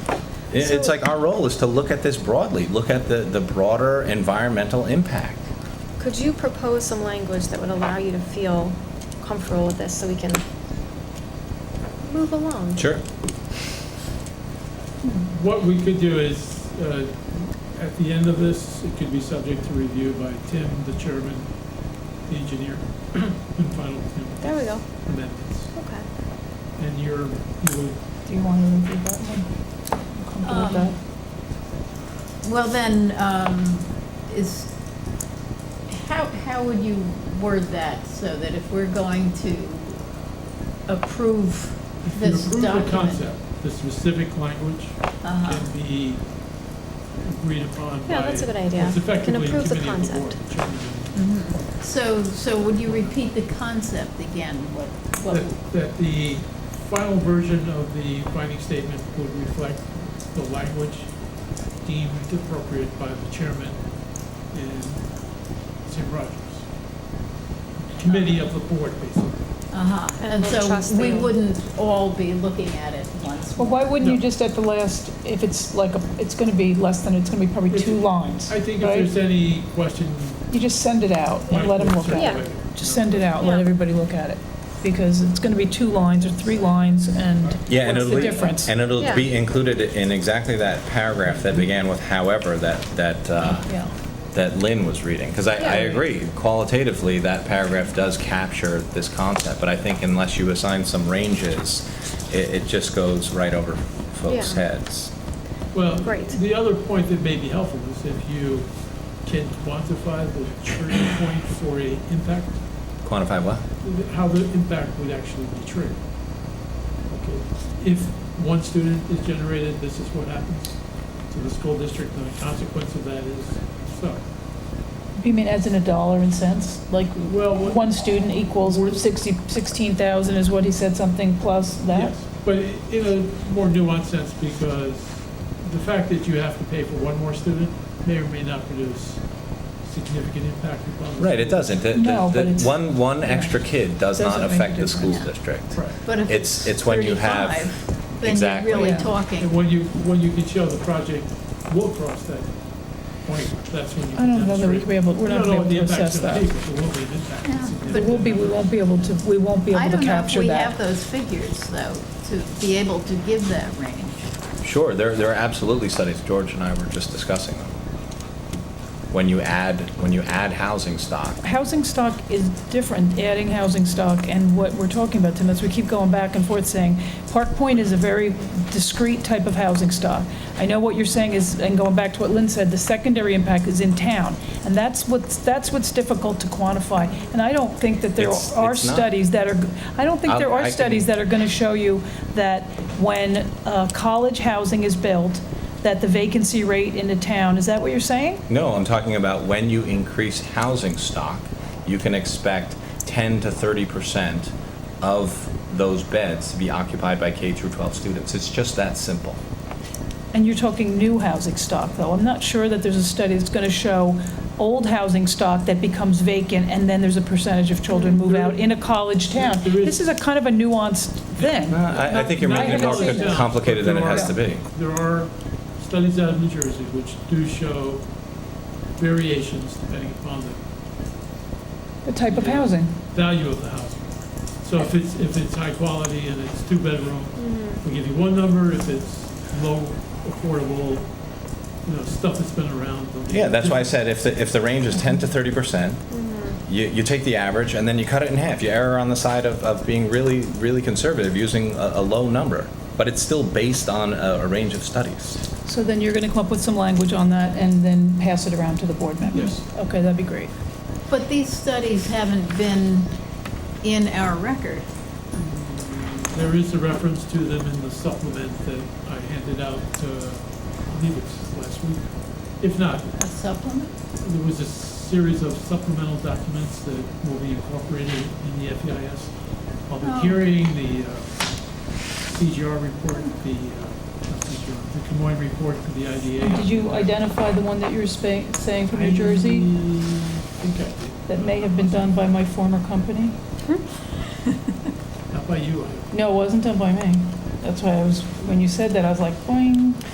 It- It's like our role is to look at this broadly, look at the, the broader environmental impact. Could you propose some language that would allow you to feel comfortable with this so we can move along? What we could do is, uh, at the end of this, it could be subject to review by Tim, the chairman, the engineer, and final There we go. amendments. Okay. And you're, you would Do you want to include that one? Comfortable Um, with that? Well, then, um, is, how, how would you word that so that if we're going to approve If you this approve document? the concept, the specific language Uh-huh. can be agreed upon by. Yeah, that's a good idea. It's We can effectively a approve the committee of the board, concept. the chairman and- Mhm. So, so would you repeat the concept again, what, what? That that the final version of the finding statement would reflect the language deemed appropriate by the chairman and Tim Rogers. Committee of the board, basically. Uh-huh, And and we'll so trust we the- wouldn't all be looking at it once. Well, why wouldn't you No. just at the last, if it's like, a- it's going to be less than, it's going to be probably If- two lines, I think if right? there's any question. You just send it out and let them Mike would look at Yeah. it. circulate Just send it out, let everybody look at it, because it's going to be two lines or three lines, and Yeah, and what's it'll the be, difference? and it'll Yeah. be included in exactly that paragraph that began with however that, that, uh, Yeah. that Lynn was reading. Because I, I Yeah. agree, qualitatively, that paragraph does capture this concept, but I think unless you assign some ranges, it, it just goes right over folks' Yeah. heads. Well, Great. the other point that may be helpful is if you can quantify the trigger point for a impact, Quantify what? how the impact would actually be triggered. Okay, If one student is generated, this is what happens to the school district, and the consequence of that is, so. You mean as in a dollar and cents? Like, Well, what- one student equals 60, 16,000 is what he said, something plus that? Yes, But i- in a more nuanced sense, because the fact that you have to pay for one more student may or may not produce significant impact upon the. Right, it school. doesn't. The- the- No, the- but it's- One, one extra kid does not Doesn't make a affect the school difference. district. Right. But if It's- it's it's when you have- 35, then Exactly. you're really Yeah. And talking. when you, when you can show the project will cross that point, that's when you I can don't know that demonstrate. we could be able, we're You not don't know going what to be the able to impact's assess gonna that. be, but there will be an impact. Yeah. But we'll be, we won't be able to, we won't be I able don't to know if capture we have that. those figures, though, to be able to give that range. Sure, there, there are absolutely studies, George and I were just discussing them. When you add, when you add housing stock, Housing stock is different, adding housing stock, and what we're talking about, Tim, is we keep going back and forth saying, Park Point is a very discrete type of housing stock. I know what you're saying is, and going back to what Lynn said, the secondary impact is in town, and that's what's, that's what's difficult to quantify. And I don't think that there It's- are it's not. studies that are, I don't think there I'll- I are can- studies that are going to show you that when uh, college housing is built, that the vacancy rate in the town, is that what you're saying? no, I'm talking about when you increase housing stock, you can expect 10 to 30% of those beds to be occupied by K through 12 students. It's just that simple. And you're talking new housing stock, though. I'm not sure that there's a study that's going to show old housing stock that becomes vacant, and then there's a percentage of children move out in a college town. There is- This is a kind of a nuanced thing. Uh, I, I think you're Not- making it not more really co- down, complicated than it but there has to are- be. There are studies out of New Jersey which do show variations depending upon the The type of housing. value of the housing. So if it's, if it's high quality and it's two bedroom, we give you one number, if it's low affordable, you know, stuff that's been around. they'll give Yeah, you that's why I different- said if the, if the range is 10 to 30 percent, you, you take the average and then you cut it in half. You err on the side of, of being really, really conservative, using a, a low number. But it's still based on a, a range of studies. So then you're going to come up with some language on that and then pass it around to the board members? Yes. Okay, that'd be great. But these studies haven't been in our record. There is a reference to them in the supplement that I handed out, uh, I believe it's last week. If not, A supplement? there was a series of supplemental documents that will be incorporated in the FEIS public Oh. hearing, the uh, CGR report, the, uh, not CGR, the Camoin report for the IDA. Did you identify the one that you were spa- saying from New Jersey I think I did. that may have been done by my former company? Not by you, I No, it wasn't done by me. That's why I was, when you said that, I was like, boing.